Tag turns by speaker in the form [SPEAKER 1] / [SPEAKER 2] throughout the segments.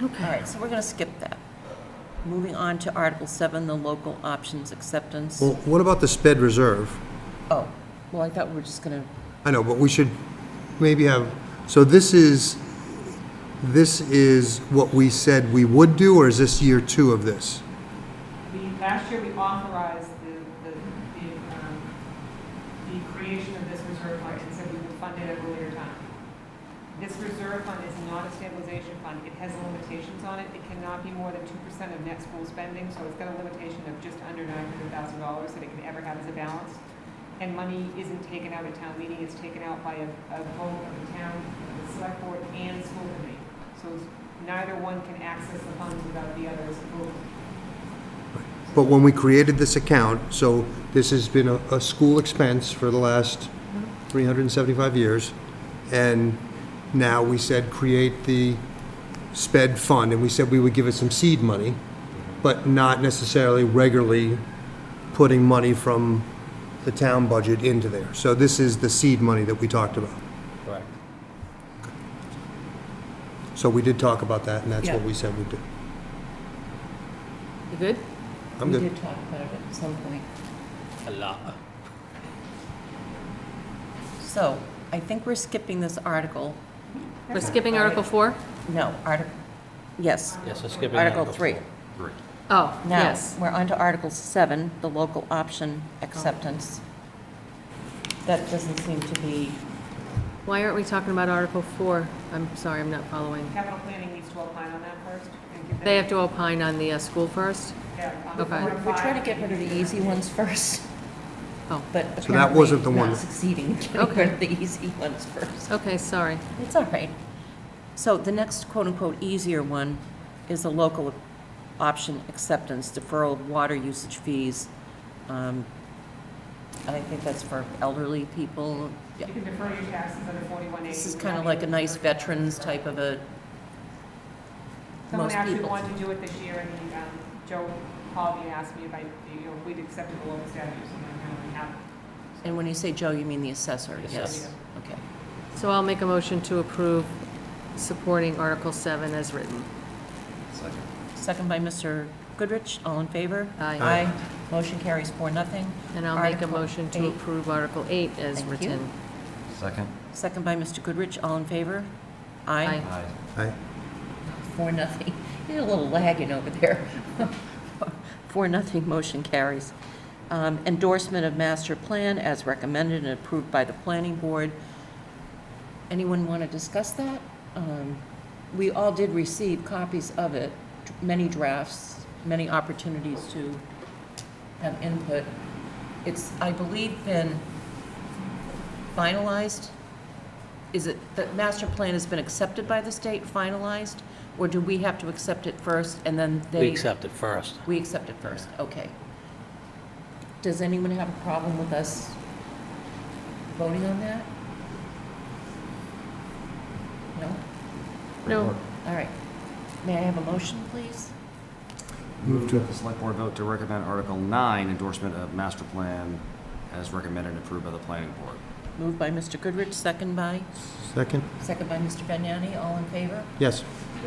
[SPEAKER 1] All right, so we're going to skip that. Moving on to Article 7, the local options acceptance.
[SPEAKER 2] Well, what about the sped reserve?
[SPEAKER 1] Oh, well, I thought we were just going to,
[SPEAKER 2] I know, but we should maybe have, so this is, this is what we said we would do, or is this year two of this?
[SPEAKER 3] We, last year, we authorized the, the, the, um, the creation of this reserve fund and said we would fund it at a later time. This reserve fund is not a stabilization fund. It has limitations on it. It cannot be more than two percent of net school spending, so it's got a limitation of just under nine hundred thousand dollars that it can ever have as a balance. And money isn't taken out at town meeting, it's taken out by a, a vote of the town, the select board, and school committee. So neither one can access the funds without the other's approval.
[SPEAKER 2] But when we created this account, so this has been a, a school expense for the last 375 years, and now we said, create the sped fund, and we said we would give it some seed money, but not necessarily regularly putting money from the town budget into there. So this is the seed money that we talked about.
[SPEAKER 4] Correct.
[SPEAKER 2] So we did talk about that, and that's what
[SPEAKER 1] Yeah.
[SPEAKER 2] we said we'd do.
[SPEAKER 1] you good?
[SPEAKER 2] I'm
[SPEAKER 1] We
[SPEAKER 2] good.
[SPEAKER 1] did talk about it at some point.
[SPEAKER 4] A lot.
[SPEAKER 1] So I think we're skipping this article.
[SPEAKER 5] We're skipping Article 4?
[SPEAKER 1] No, Article, yes,
[SPEAKER 4] Yes, we're skipping.
[SPEAKER 1] Article 3.
[SPEAKER 5] Oh,
[SPEAKER 1] Now,
[SPEAKER 5] yes.
[SPEAKER 1] we're on to Article 7, the local option acceptance. That doesn't seem to be,
[SPEAKER 5] Why aren't we talking about Article 4? I'm sorry, I'm not following.
[SPEAKER 3] Capital planning needs to opine on that first. and give
[SPEAKER 5] They
[SPEAKER 3] them-
[SPEAKER 5] have to opine on the uh, school first?
[SPEAKER 3] Yeah, on
[SPEAKER 5] Okay.
[SPEAKER 3] four and
[SPEAKER 1] we're trying to
[SPEAKER 3] five.
[SPEAKER 1] get rid of the easy ones first,
[SPEAKER 5] Oh,
[SPEAKER 1] but
[SPEAKER 2] So that wasn't the
[SPEAKER 1] apparently not
[SPEAKER 2] one.
[SPEAKER 1] succeeding in getting rid of the easy ones first.
[SPEAKER 5] okay, sorry.
[SPEAKER 1] It's all right. So the next quote-unquote easier one is a local option acceptance, deferral of water usage fees. Um, And I think that's for elderly people. Yeah,
[SPEAKER 3] You can defer your taxes under 41A.
[SPEAKER 1] This is kind of like a nice veterans type of a,
[SPEAKER 3] Someone
[SPEAKER 1] most
[SPEAKER 3] actually
[SPEAKER 1] people.
[SPEAKER 3] wanted to do it this year, and he, um, Joe called me and asked me if I, you know, if we'd accepted the local statutes, and I kind of have.
[SPEAKER 1] and when you say Joe, you mean the assessor,
[SPEAKER 4] Yes.
[SPEAKER 1] yes? Okay.
[SPEAKER 5] So I'll make a motion to approve supporting Article 7 as written.
[SPEAKER 1] Second by Mr. Goodrich, all in favor?
[SPEAKER 5] Aye.
[SPEAKER 1] Aye. Motion carries four, nothing.
[SPEAKER 5] And I'll make a
[SPEAKER 1] Article
[SPEAKER 5] motion to
[SPEAKER 1] eight.
[SPEAKER 5] approve Article 8 as
[SPEAKER 1] Thank you.
[SPEAKER 5] written.
[SPEAKER 4] Second.
[SPEAKER 1] Second by Mr. Goodrich, all in favor?
[SPEAKER 5] Aye.
[SPEAKER 4] Aye.
[SPEAKER 2] Aye.
[SPEAKER 1] Four, nothing. You're a little lagging over there. Four, nothing, motion carries. Um, Endorsement of master plan as recommended and approved by the planning board. Anyone want to discuss that? Um, We all did receive copies of it, many drafts, many opportunities to have input. It's, I believe, been finalized? Is it, the master plan has been accepted by the state, finalized? Or do we have to accept it first and then they?
[SPEAKER 4] We accept it first.
[SPEAKER 1] We accept it first, okay. Does anyone have a problem with us voting on that? No?
[SPEAKER 5] No,
[SPEAKER 1] All right. May I have a motion, please?
[SPEAKER 2] Move to-
[SPEAKER 6] That The select board vote to recommend Article 9, endorsement of master plan as recommended and approved by the planning board.
[SPEAKER 1] Moved by Mr. Goodrich, second by,
[SPEAKER 2] Second?
[SPEAKER 1] second by Mr. Vagnani, all in favor?
[SPEAKER 2] Yes.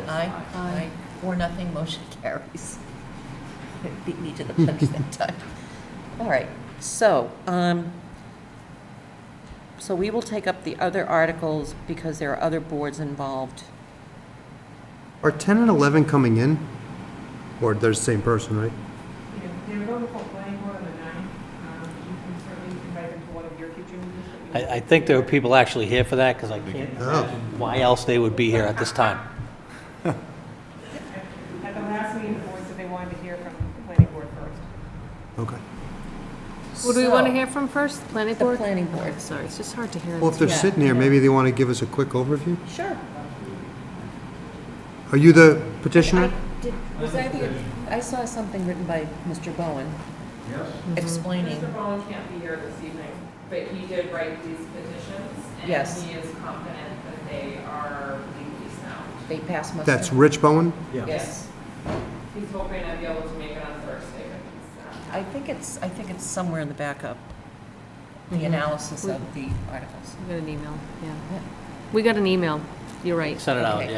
[SPEAKER 1] Aye.
[SPEAKER 6] Aye.
[SPEAKER 1] Aye. Four, nothing, motion carries. It Beat me to the punch that time. All right, so, um, so we will take up the other articles because there are other boards involved.
[SPEAKER 2] Are 10 and 11 coming in? Or they're the same person, right?
[SPEAKER 3] You know, they're going for planning board on the ninth, um, you can certainly invite them to one of your future meetings. but we-
[SPEAKER 4] I, I think there were people actually here for that, because I can't imagine why else they would be here at this time.
[SPEAKER 3] At the last meeting, the board said they wanted to hear from the planning board first.
[SPEAKER 2] Okay.
[SPEAKER 5] who do we want to
[SPEAKER 1] So-
[SPEAKER 5] hear from first? Planning
[SPEAKER 1] The
[SPEAKER 5] board?
[SPEAKER 1] planning board.
[SPEAKER 5] Sorry, it's just hard to hear. in
[SPEAKER 2] Well, if
[SPEAKER 5] this
[SPEAKER 2] they're
[SPEAKER 1] Yeah.
[SPEAKER 2] sitting here, maybe they want to give us a quick overview?
[SPEAKER 1] Sure.
[SPEAKER 2] Are you the petitioner?
[SPEAKER 1] I did- Was I the, I saw something written by Mr. Bowen. Yes. Mm-hmm. Explaining,
[SPEAKER 7] Mr. Bowen can't be here this evening, but he did write these petitions.
[SPEAKER 1] Yes.
[SPEAKER 7] And he is confident that they are legally sound.
[SPEAKER 1] they passed muster.
[SPEAKER 2] That's Rich Bowen?
[SPEAKER 1] Yes.
[SPEAKER 7] He's hoping to be able to make it on Thursday, but he's not.
[SPEAKER 1] I think it's, I think it's somewhere in the backup, the analysis of the articles.
[SPEAKER 5] We got an email, yeah.
[SPEAKER 1] Yeah.
[SPEAKER 5] We got an email, you're right.
[SPEAKER 4] Send it out,
[SPEAKER 1] Okay.
[SPEAKER 4] yeah.